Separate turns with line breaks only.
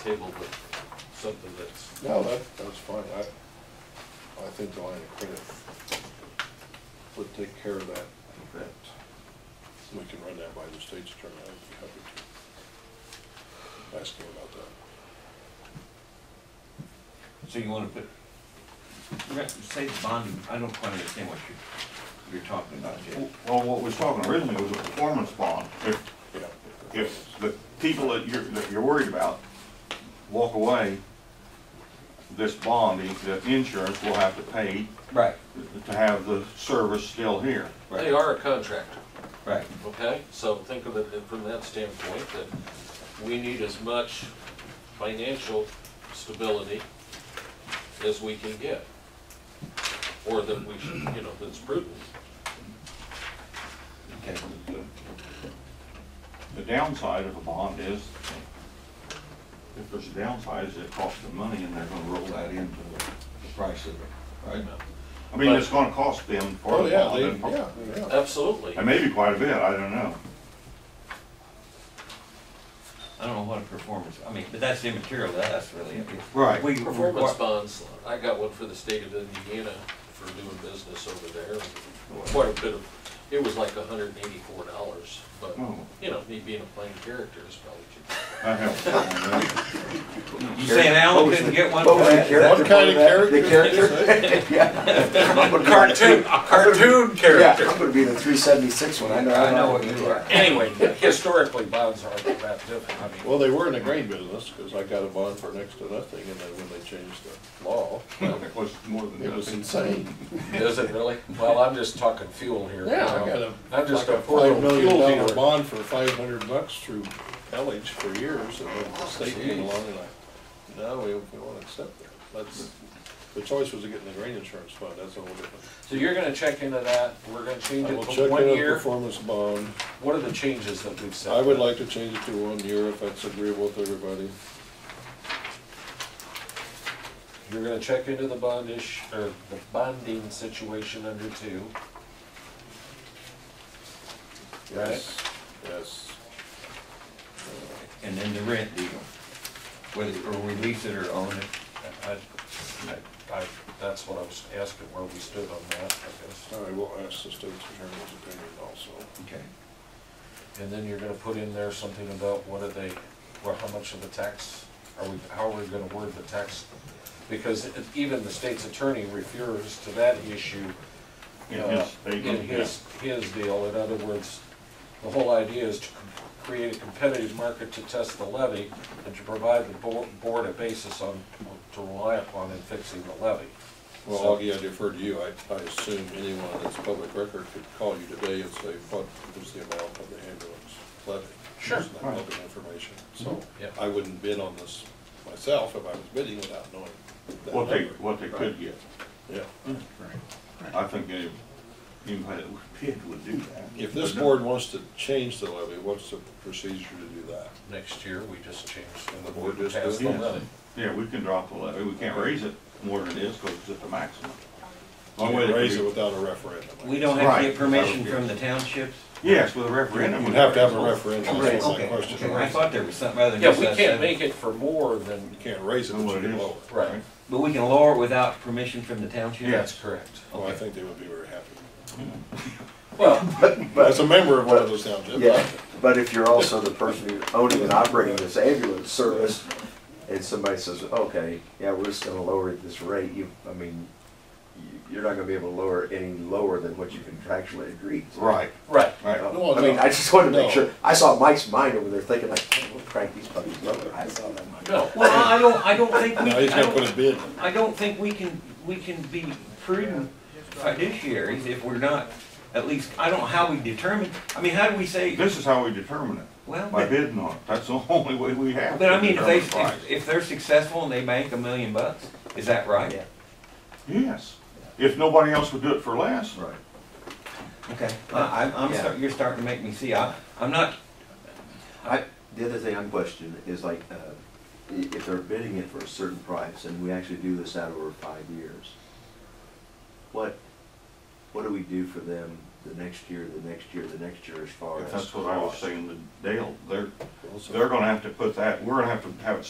table with something that's
No, that, that's fine, I, I think the line of credit would take care of that.
Okay.
We can run that by the state's attorney, I'd be happy to ask him about that.
So you wanna put, re- say the bonding, I don't quite understand what you're, you're talking about, Jay.
Well, what we're talking originally was a performance bond. If,
Yeah.
if the people that you're, that you're worried about walk away, this bond, the- the insurance will have to pay
Right,
to have the service still here.
They are a contractor,
right.
okay? So think of it from that standpoint, that we need as much financial stability as we can get. Or that we should, you know, that's prudent.
Okay,
The downside of a bond is, if there's a downside, is it costs them money and they're gonna roll that into the,
the price of it, right?
I mean, it's gonna cost them for
Oh,
the
yeah,
bond.
they,
and for-
yeah, yeah.
Absolutely.
And maybe quite a bit, I don't know.
I don't know what a performance, I mean, but that's immaterial to us, really.
Right.
We,
Performance
require-
bonds, I got one for the state of Indiana for doing business over there. Quite a bit of, it was like hundred and eighty-four dollars, but,
Oh.
you know, me being a plain character is probably cheap.
I have that one, but-
you saying Alan couldn't get one for that?
What kind of character?
The character? Yeah. I'm gonna be the-
Cartoon, a cartoon
Yeah,
character.
I'm gonna be the three seventy-six one, I know.
I know what you are.
Anyway, historically, bonds aren't that different, I mean.
Well, they were in the grain business, cause I got a bond for next to nothing, and then when they changed the law,
It was more than
it was
nothing.
insane.
Is it really? Well, I'm just talking fuel here.
Yeah, I got a,
I'm
like
just a
a
poor
five
little
million
fuel
dollar
dealer.
bond for five hundred bucks through Elledge for years, and then the state came
Jeez.
along and I, no, we, we won't accept that. That's, the choice was to get in the grain insurance fund, that's a whole different.
So you're gonna check into that, we're gonna change
I will
it
check
to
in
one
a
year.
performance bond.
What are the changes that we've said?
I would like to change it to one year if that's agreeable with everybody.
You're gonna check into the bondish, or the bonding situation under two.
Yes, yes.
And then the rent deal, whether, or we lease it or own it.
I, I- I, that's what I was asking, where we stood on that, I guess.
I will ask the state's attorney's opinion also.
Okay.
And then you're gonna put in there something about what are they, or how much of the tax, are we, how are we gonna word the tax? Because it- even the state's attorney refers to that issue
In
uh,
his- they
in
did,
his, his deal. In other words, the whole idea is to c- create a competitive market to test the levy and to provide the bo- board a basis on, to rely upon in fixing the levy.
Well,
So-
Augie, I defer to you. I, I assume anyone that's public record could call you today and say, what is the amount of the ambulance levy?
Sure.
It's not
Right. Mm-hmm.
public information, so
Yeah.
I wouldn't bid on this myself if I was bidding without knowing that
What they,
number.
what they could get.
Yeah.
I think any, anybody that would bid would do that.
If this board wants to change the levy, what's the procedure to do that?
Next year, we just change the
The
board
board
to
just
pass the
does it.
levy.
Yeah, we can drop the levy, we can't raise it more than it is, because it's at the maximum. Long way
Can't
to
Raise it
agree.
without a referendum. I
We
guess.
don't have to
Right.
get permission from the townships?
Yes, with a referendum.
You'd have to have a referendum, that's my
Okay,
question.
okay, I thought there was something other than
Yeah,
just
we
us
can't
seven.
make it for more than,
You can't raise it,
Know
but
what
you
it
can
is.
lower it.
right,
But we can lower it without permission from the township?
Yes.
that's correct.
Well, I think they would be very happy.
Well,
As a member of one of those townships.
Yeah, but if you're also the person who's owning and operating this ambulance service, and somebody says, okay, yeah, we're just gonna lower this rate, you, I mean, you- you're not gonna be able to lower it any lower than what you contractually agreed. to.
Right,
right,
right.
No,
I mean, I just wanted to
no.
make sure, I saw Mike's mind over there thinking like, "Man, we'll crank these puppies lower, I saw that, Mike.
no,
Well, I I don't, I don't think we,
No, he's
I
gonna put a
don't,
bid.
I don't think we can, we can be prudent fiduciaries if we're not, at least, I don't know how we determine, I mean, how do we say,
This is how we determine it,
well,
by
but,
bidding on it. That's the only way we have.
but
to
I mean, if they,
determine
if,
price.
if they're successful and they bank a million bucks, is that right?
Yeah.
Yes, if nobody else would do it for less,
Right.
Okay, I, I'm, I'm,
Yeah.
start- you're starting to make me see, I, I'm not,
I, the other thing I'm questioning is like, uh, i- if they're bidding it for a certain price, and we actually do this out over five years, what, what do we do for them the next year, the next year, the next year as far as?
that's what I was
cost?
saying to Dale, they're, they're gonna have to put that, we're gonna have to have it